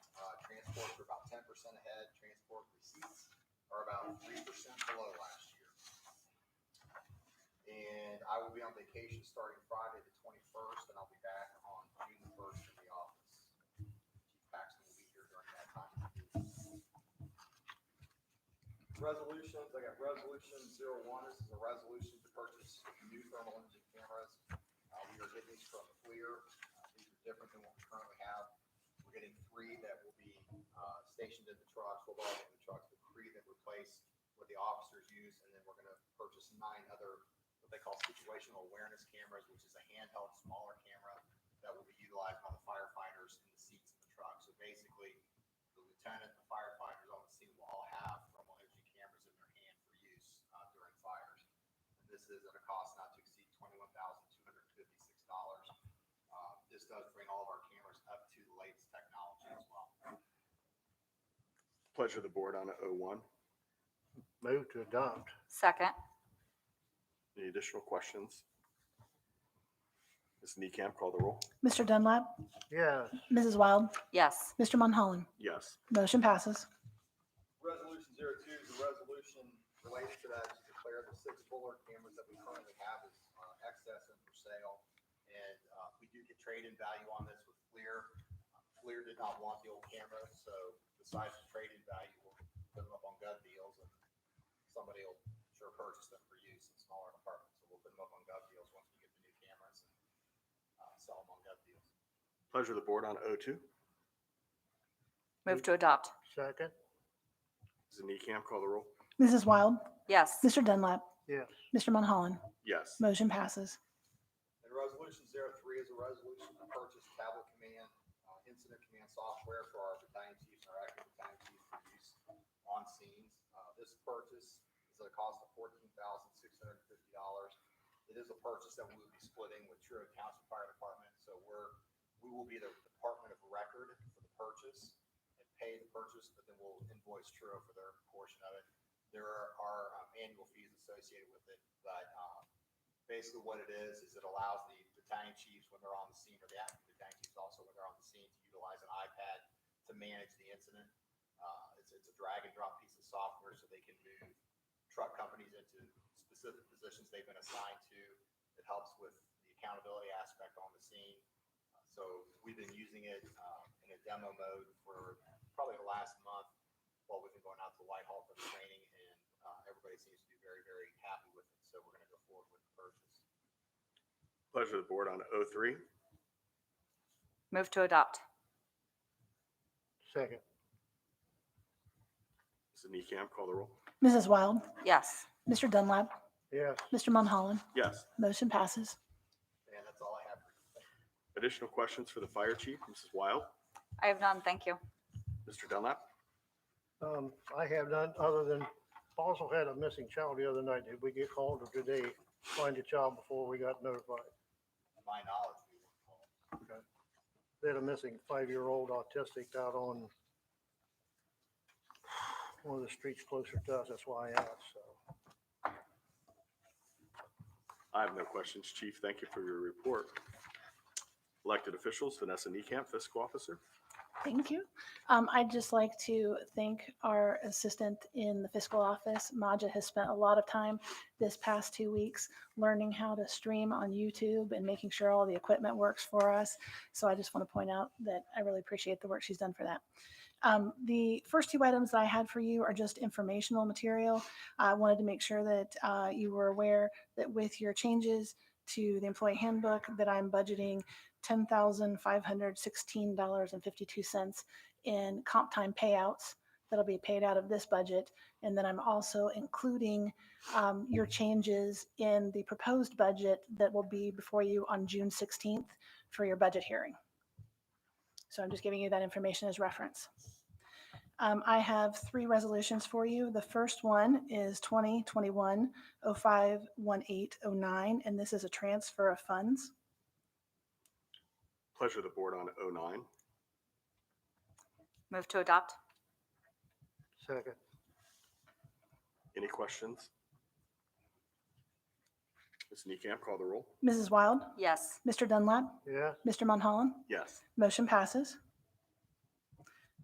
Uh, percent ahead. Transport receipts are about three percent below last year. And I will be on vacation starting Friday the twenty-first, and I'll be back on June the first in the office. Chief Paxton will be here during that time. Resolutions, I got resolution zero one, this is a resolution to purchase new thermal imaging cameras. Uh, we are getting these from FLIR, Uh, these are different than what we currently have. We're getting three that will be uh, stationed in the trucks, we'll all get in the trucks, but three that replace what the officers use, and then we're gonna purchase nine other, what they call situational awareness cameras, which is a handheld, smaller camera that will be utilized by the firefighters in the seats of the truck. So basically, the lieutenant, the firefighters on the scene will all have thermal imaging cameras in their hand for use uh, during fires. And this is at a cost not to exceed twenty-one thousand two hundred fifty-six dollars. Um, This does bring all of our cameras up to the latest technology as well. Pleasure of the board on O one. Move to adopt. Second. Any additional questions? Ms. Neecamp, call the roll. Mr. Dunlap, Yes. Mrs. Wild, Yes. Mr. Monholland. Yes. Motion passes. Resolution zero two is a resolution related to that, to declare the six Fuller cameras that we currently have as uh, excess and for sale. And uh, we do get trade-in value on this with FLIR. FLIR did not want the old camera, so besides the trade-in value, we'll put them up on gov deals and somebody will sure purchase them for use in smaller departments. So we'll put them up on gov deals once we get the new cameras and uh, sell them on gov deals. Pleasure of the board on O two. Move to adopt. Second. Ms. Neecamp, call the roll. Mrs. Wild, Yes. Mr. Dunlap, Yes. Mr. Monholland. Yes. Motion passes. And resolution zero three is a resolution to purchase tablet command, uh, incident command software for our battalion chiefs and our active battalion chiefs for use on scenes. Uh, this purchase is at a cost of fourteen thousand six hundred and fifty dollars. It is a purchase that we will be splitting with Truro Council Fire Department, so we're, we will be the department of record for the purchase and pay the purchase, but then we'll invoice Truro for their portion of it. There are um, annual fees associated with it, but, um, basically what it is, is it allows the battalion chiefs when they're on the scene, or the active battalion chiefs also when they're on the scene, to utilize an iPad to manage the incident. Uh, it's, it's a drag and drop piece of software so they can move truck companies into specific positions they've been assigned to. It helps with the accountability aspect on the scene. Uh, So we've been using it, um, in a demo mode for probably the last month while we've been going out to Whitehall for the training and, uh, everybody seems to be very, very happy with it. So we're gonna go forward with the purchase. Pleasure of the board on O three. Move to adopt. Second. Ms. Neecamp, call the roll. Mrs. Wild, Yes. Mr. Dunlap, Yes. Mr. Monholland. Yes. Motion passes. And that's all I have for you. Additional questions for the fire chief, Mrs. Wild, I have none. Thank you. Mr. Dunlap? Um, I have none other than, also had a missing child the other night. Did we get called or did they find the child before we got notified? To my knowledge, we weren't called. They had a missing five-year-old autistic out on one of the streets closer to us. That's why I asked, so. I have no questions, chief. Thank you for your report. Elected officials, Vanessa Neecamp, fiscal officer. Thank you. Um, I'd just like to thank our assistant in the fiscal office. Maja has spent a lot of time this past two weeks learning how to stream on YouTube and making sure all the equipment works for us. So I just want to point out that I really appreciate the work she's done for that. Um, the first two items that I had for you are just informational material. I wanted to make sure that uh, you were aware that with your changes to the employee handbook, that I'm budgeting ten thousand five hundred sixteen dollars and fifty-two cents in comp time payouts that'll be paid out of this budget. And then I'm also including um, your changes in the proposed budget that will be before you on June sixteenth for your budget hearing. So I'm just giving you that information as reference. Um, I have three resolutions for you. The first one is twenty twenty-one oh five one eight oh nine, and this is a transfer of funds. Pleasure of the board on O nine. Move to adopt. Second. Any questions? Ms. Neecamp, call the roll. Mrs. Wild, Yes. Mr. Dunlap, Yes. Mr. Monholland, Yes. motion passes.